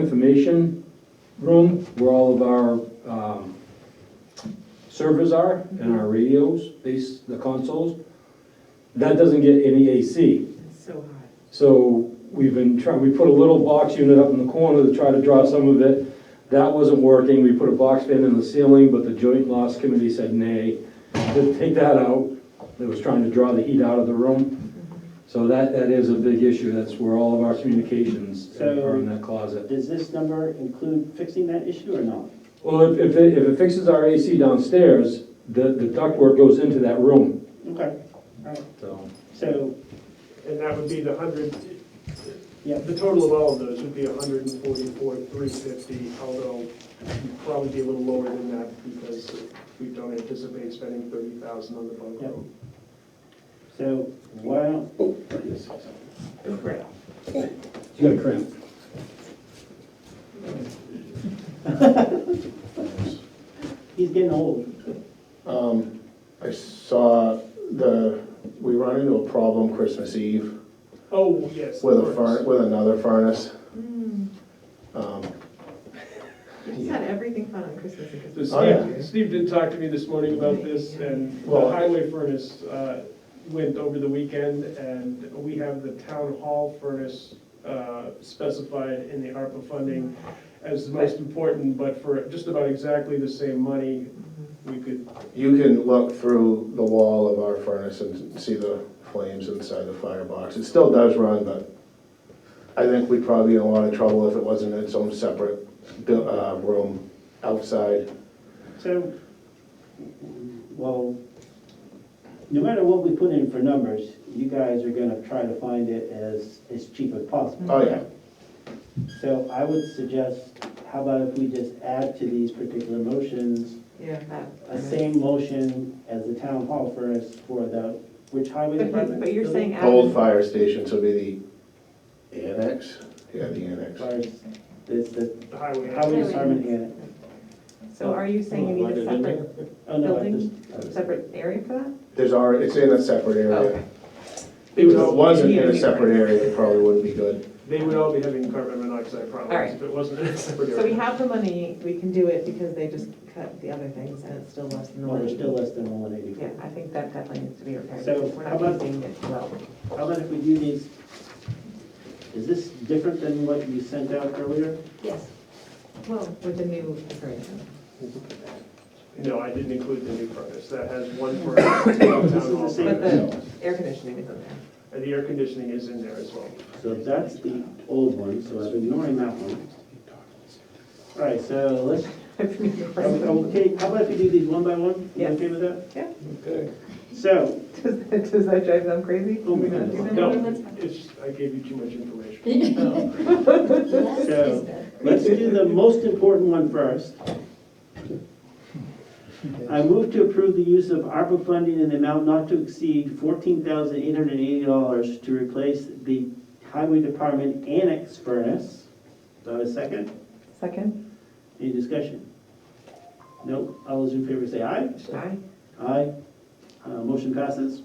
information room where all of our um, servers are and our radios, these, the consoles. That doesn't get any AC. It's so hot. So we've been trying, we put a little box unit up in the corner to try to draw some of it. That wasn't working, we put a box fan in the ceiling, but the joint loss committee said nay, to take that out. It was trying to draw the heat out of the room. So that, that is a big issue, that's where all of our communications are in that closet. Does this number include fixing that issue or not? Well, if, if it, if it fixes our AC downstairs, the, the ductwork goes into that room, Okay, all right, so. so, And that would be the hundred, yeah, the total of all of those would be a hundred and forty-four, three fifty, although it'd probably be a little lower than that because we don't anticipate spending thirty thousand on the bunk Yep. room. so why don't, You got a cramp. he's getting old. Um, I saw the, we run into a problem Christmas Eve Oh, yes. with a the furnace, furnace. with another furnace. Um, He's Mm, had everything fun on Christmas and Christmas. So Oh, yeah. Steve, Steve did talk to me this morning about this, and the Well- highway furnace uh, went over the weekend, and we have the town hall furnace uh, specified in the ARPA Oh, funding as the most important, but for just about exactly the same money, we could, You can look through the wall of our furnace and see the flames inside the firebox. It still does run, but I think we'd probably be in a lot of trouble if it wasn't in its own separate bu- uh, room outside. So, well, no matter what we put in for numbers, you guys are gonna try to find it as, as cheap as possible. Oh, yeah. Mm-hmm. So I would suggest, how about if we just add to these particular motions, Yeah, that. a same motion as the town hall furnace for the, which highway But he- department? but you're saying add. Old fire station, so it'd be the annex? Yeah, the annex. Fires, this, the The highway. highway department and, So are you saying you need a separate, oh no, I Building? just. separate area for that? There's already, it's in a separate Okay. area. They If would it all, wasn't in a separate area, it probably wouldn't be good. they would all be having carbon monoxide All problems right. if it wasn't in a separate So we area. have the money, we can do it because they just cut the other things and it's still less than the No, they're money. still less than one eighty. Yeah, I think that definitely needs to be repaired So because we're how not about- using it well. How about if we do these, is this different than what you sent out earlier? Yes. Well, with the new agreement. No, I didn't include the new furnace. That has one furnace. town This is the hall same- But furnace. the air conditioning is in there. And the air conditioning is in there as well. So that's the old one, so I'm ignoring that one. All right, so let's, It's in your are we- are we present. okay, how about if we do these one by one? You Yes. okay with that? Yeah. Okay. So, Does that- does that drive them crazy? Oh, my Do we not do that? No, it's, I gave you too much information. so, let's do the most important one first. I move to approve the use of ARPA funding in the amount not to exceed fourteen thousand eight hundred and eighty dollars to replace the highway department annex furnace. Do I have a second? Second? Any discussion? No? All those in favor say aye. Aye. Aye. Uh, Motion passes.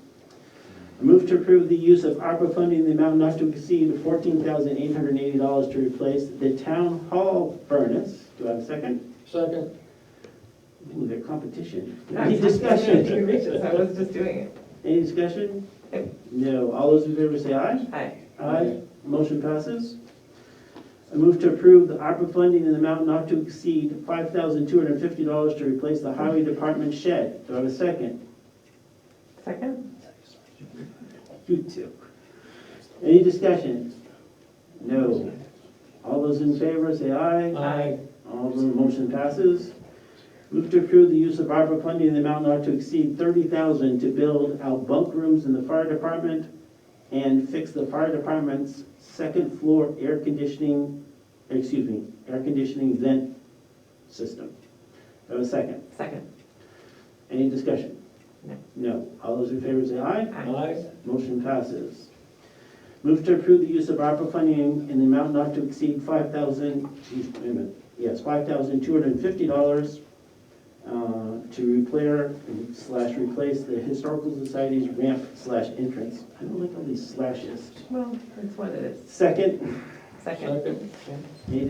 I move to approve the use of ARPA funding in the amount not to exceed $14,880 to replace the town hall furnace. Do I have a second? Second. Ooh, they're competition. No, Any it's not gonna be discussion? outrageous. I was just doing it. Any discussion? No. All those in favor say aye. Aye. Aye. Motion passes. I move to approve the ARPA funding in the amount not to exceed $5,250 to replace the highway department shed. Do I have a second? Second? You too. Any discussion? No. All those in favor, say aye. Aye. All the motion passes. Move to approve the use of ARPA funding in the amount not to exceed thirty thousand to build out bunk rooms in the fire department and fix the fire department's second floor air conditioning, excuse me, air conditioning vent system. Do I have a second? Second. Any discussion? No. No. All those in favor, say aye. Aye. Motion passes. Move to approve the use of ARPA funding in the amount not to exceed five thousand, geez, wait a minute, yes, five thousand two hundred and fifty dollars uh, to repair slash replace the Historical Society's ramp slash entrance. I don't like all these slashes. Well, it's what it is. Second, Second.